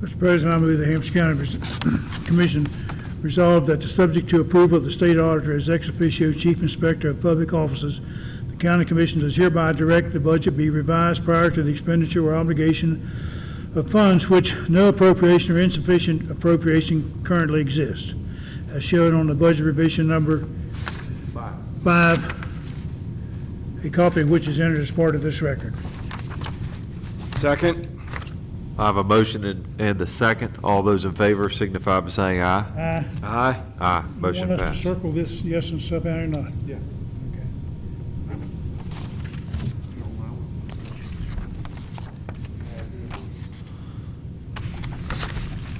Mr. President, I move the Hampshire County Res- Commission resolve that the subject to approval of the state auditor as ex officio chief inspector of public offices, the county commission does hereby direct the budget be revised prior to the expenditure or obligation of funds which no appropriation or insufficient appropriation currently exists, as shown on the budget revision number five, a copy of which is entered as part of this record. Second. I have a motion and- and a second. All those in favor signify by saying aye. Aye. Aye. Aye, You motion Want us to passed. circle this yes and stuff out or not? Yeah.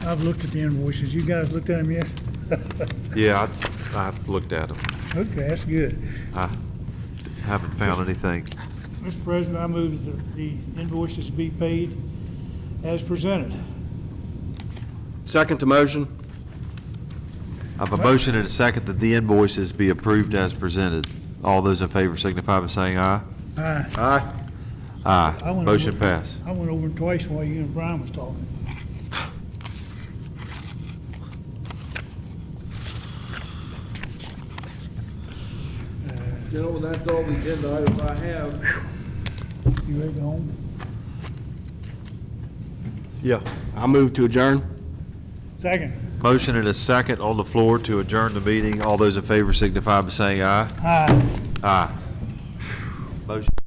I've looked at the invoices. You guys looked at them yet? Yeah, I, I looked at them. Okay, that's good. I haven't found anything. Mr. President, I move that the invoices be paid as presented. Second to motion. I have a motion and a second that the invoices be approved as presented. All those in favor signify by saying aye. Aye. Aye. I Aye, wanna- motion passed. I went over it twice while you and Brian was talking. Gentlemen, that's all the agenda items I have. You ready to go home? Yeah. I move to adjourn. Second. Motion and a second on the floor to adjourn the meeting. All those in favor signify by saying aye. Aye. Aye. Motion